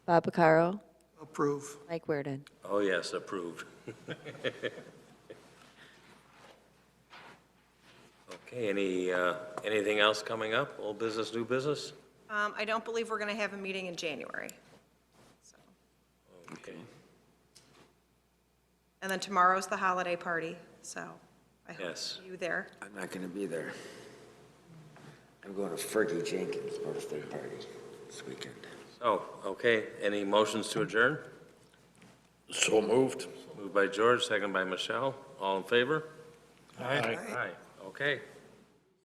Bob Picaro, Approve. Mike Werden. Oh, yes, approved. Okay, any, uh, anything else coming up? Old business, new business? Um, I don't believe we're going to have a meeting in January. So, Okay. And then tomorrow's the holiday party, so I hope Yes. you there. I'm not going to be there. I'm going to Fergie Jenkins' birthday party this weekend. Oh, okay, any motions to adjourn? So moved. Moved by George, second by Michelle. All in favor? Aye. Aye. Okay,